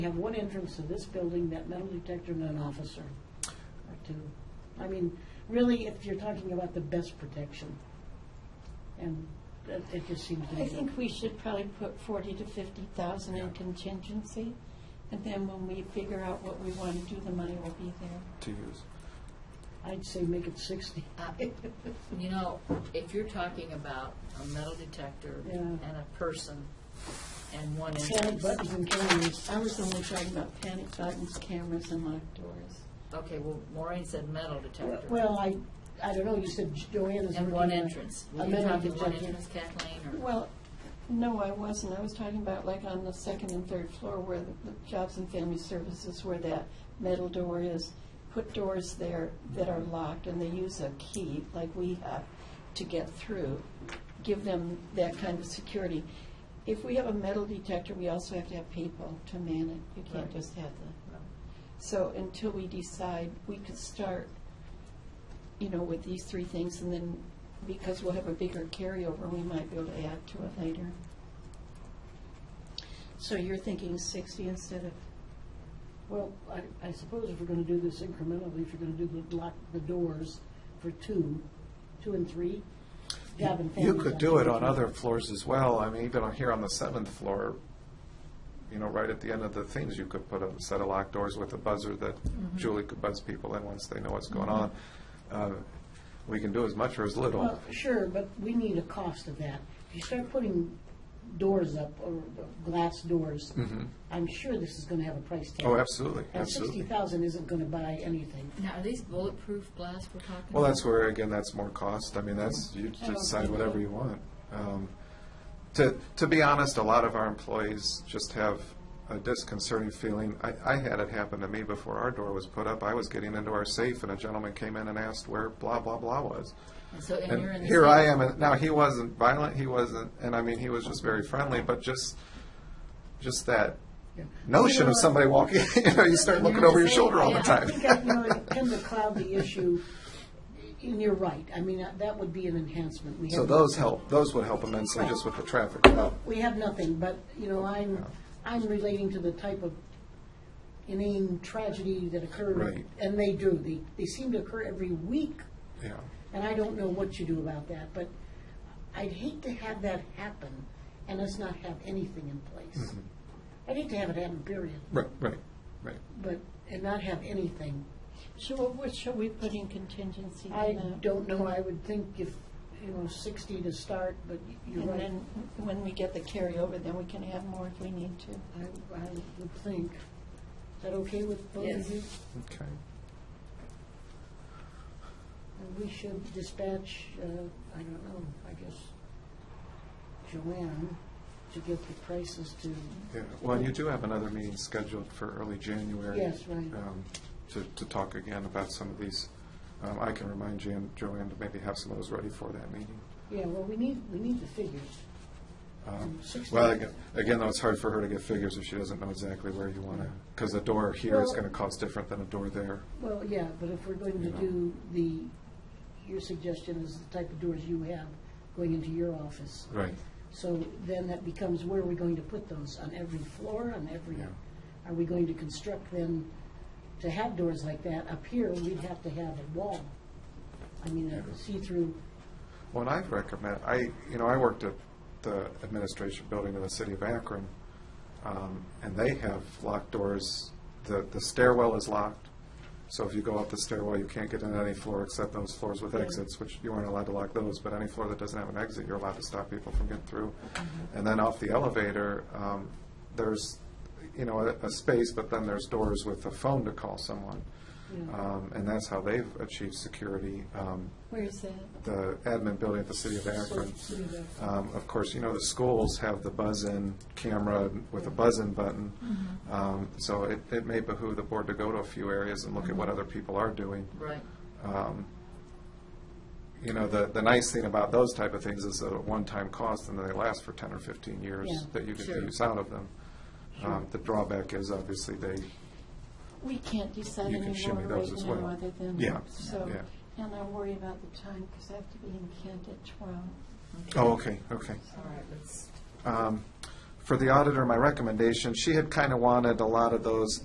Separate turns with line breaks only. We have one entrance to this building, that metal detector and an officer, or two. I mean, really, if you're talking about the best protection, and it it just seems to be.
I think we should probably put forty to fifty thousand in contingency, and then when we figure out what we want to do, the money will be there.
to use.
I'd say make it sixty.
Uh, You know, if you're talking about a metal detector
Yeah.
and a person and one
Panic
entrance,
buttons and cameras.
I was only talking about panic buttons, cameras, and locked doors.
okay, well, Maureen said metal detector
Well, I, I don't know, you said Joanna's.
and one
working on
entrance.
A
Were you
metal
talking one
detector.
entrance, Kathleen, or?
Well, no, I wasn't. I was talking about like on the second and third floor where the the Jobs and Family Services, where that metal door is. Put doors there that are locked and they use a key like we have to get through. Give them that kind of security. If we have a metal detector, we also have to have people to man it. You can't
Right.
just have the, so until we decide, we could start, you know, with these three things and then, because we'll have a bigger carryover, we might be able to add to it later. So you're thinking sixty instead of,
Well, I, I suppose if we're gonna do this incrementally, if you're gonna do the lock, the doors for two, two and three, job and family.
You could do it on other floors as well. I mean, even on here on the seventh floor, you know, right at the end of the things, you could put a set of locked doors with a buzzer that
Mm-hmm.
Julie could buzz people in once they know what's going on. Uh, We can do as much or as little.
Well, sure, but we need a cost of that. If you start putting doors up, or glass doors,
Mhm.
I'm sure this is gonna have a price tag.
Oh, absolutely,
And sixty
absolutely.
thousand isn't gonna buy anything.
Now, are these bulletproof glass we're talking about?
Well, that's where, again, that's more cost. I mean, that's, you
I don't
decide
think
whatever
so.
you want. Um, To, to be honest, a lot of our employees just have a disconcerting feeling. I, I had it happen to me before our door was put up. I was getting into our safe and a gentleman came in and asked where blah, blah, blah was.
And so, and you're in
And
the.
here
same-
I am, and now he wasn't violent, he wasn't, and I mean, he was just very friendly, but just, just that
Yeah.
notion of somebody walking, you know, you start looking over your shoulder all the
I
time.
think, I- you know, it tend to cloud the issue, and you're right. I mean, uh, that would be an enhancement. We
So
have-
those help, those would help immensely just with the traffic.
Well, we have nothing, but, you know, I'm, I'm relating to the type of inane tragedy that occurred.
Right.
And they do. They, they seem to occur every week,
Yeah,
and I don't know what you do about that, but I'd hate to have that happen and us not have anything in place. I'd hate to have it happen, period,
right, right, right.
but, and not have anything.
so what- what shall we put in contingency? uh, in
I
that?
don't know, I would think if, you know, sixty to start, but y- you're
And
right.
then when we get the carryover, then we can add more if we need to.
I, I would think. Is that okay with both
Yes.
of you?
Okay.
And we should dispatch, uh, I don't know, I guess Joanne to get the prices to,
Yeah, well, you do have another meeting scheduled for early January.
Yes, right.
um, To, to talk again about some of these. Um, I can remind Jan, Joanne to maybe have some of those ready for that meeting.
yeah, well, we need, we need the figures.
Um,
Sixty-
Well, aga- again, though, it's hard for her to get figures if she doesn't know exactly where you want to, because a door here is
Well-
going to cost different than a door there.
Well, yeah, but if we're going to
Yeah.
do the, your suggestion is the type of doors you have going into your office.
Right.
So then that becomes, where are we going to put those? On every floor, on every,
Yeah.
are we going to construct them to have doors like that? Up here, we'd have to have a wall. I mean,
Yeah.
a see-through,
Well, and I'd recommend, I, you know, I worked at the administration building in the city of Akron, um, and they have locked doors. The, the stairwell is locked, so if you go up the stairwell, you can't get in any floor except those floors with
Yeah.
exits, which you aren't allowed to lock those, but any floor that doesn't have an exit, you're allowed to stop people from getting through. And then off the elevator, um, there's, you know, a, a space, but then there's doors with a phone to call someone.
you know.
Um, and that's how they've achieved security. Um,
Where is that?
the admin building at the city of Akron.
So, see that.
Um, Of course, you know, the schools have the buzz-in camera with a buzz-in button.
Mm-hmm.
Um, So it, it may behoove the board to go to a few areas and look at what other people are doing.
Right.
Um, You know, the, the nice thing about those type of things is a one-time cost and they last for ten or fifteen years
Yeah.
that you get the
Sure.
use out of them. Um, The drawback is obviously they,
We can't decide
You can
any
show me
more right
those as
now
well.
other than,
Yeah,
so,
yeah.
and I worry about the time because I have to be in Kent at twelve.
oh, okay, okay.
All right, let's,
Um, for the auditor, my recommendation, she had kind of wanted a lot of those